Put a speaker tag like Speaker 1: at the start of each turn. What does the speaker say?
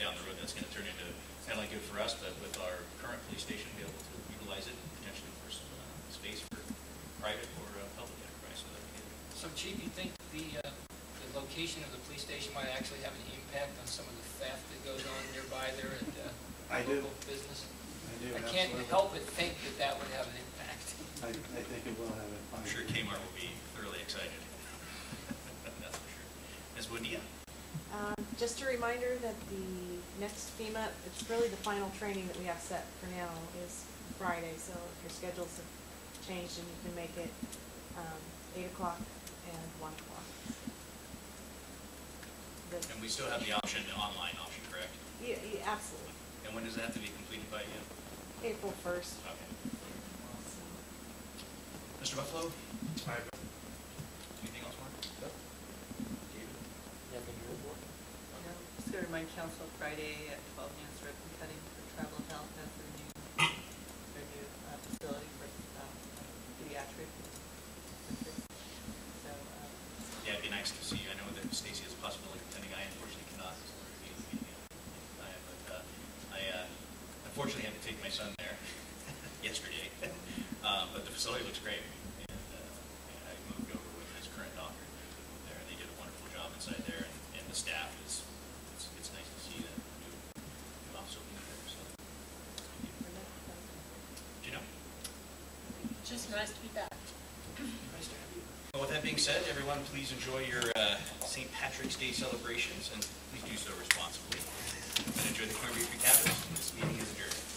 Speaker 1: down the road, that's gonna turn into, it's not only good for us, but with our current police station, be able to utilize it potentially for some, uh, space for private or uh, public enterprise, so that'd be good.
Speaker 2: So Chief, you think the, uh, the location of the police station might actually have an impact on some of the theft that goes on nearby there at uh,
Speaker 3: I do.
Speaker 2: local business?
Speaker 3: I do,
Speaker 2: I
Speaker 3: absolutely.
Speaker 2: can't help but think that that would have an impact.
Speaker 3: I, I think it will have a.
Speaker 1: I'm sure Kmart will be thoroughly excited. That's for sure. Ms. Woodya?
Speaker 4: Um, Just a reminder that the next FEMA, it's really the final training that we have set for now is Friday, so if your schedules have changed and you can make it, um, eight o'clock and one o'clock. The-
Speaker 1: And we still have the option, the online option, correct?
Speaker 4: Yeah, yeah, absolutely.
Speaker 1: And when does that have to be completed by you?
Speaker 4: April first.
Speaker 1: Okay.
Speaker 4: So,
Speaker 1: Mr. Buffalo?
Speaker 5: I
Speaker 1: Anything else, Mark? David?
Speaker 6: No, Just go to my council Friday at twelve noon, it's ribbon cutting for travel health, that's their new, their new uh, facility for um, pediatric. So, um,
Speaker 1: Yeah, it'd be nice to see you. I know that Stacy has a possibility of attending. I unfortunately cannot. so we're gonna be, uh, I- But uh, I uh, unfortunately had to take my son there yesterday. Uh, But the facility looks great. And uh, and I moved over with his current doctor over there. and They did a wonderful job inside there and and the staff is, it's it's nice to see that new new office opening there. So, thank you.
Speaker 4: for next Thursday.
Speaker 1: Gino?
Speaker 7: Just nice to be back.
Speaker 1: Well, with that being said, everyone, please enjoy your uh, St. Patrick's Day celebrations, and please do so responsibly. And enjoy the Corned Beef Recaps. This meeting is adjourned.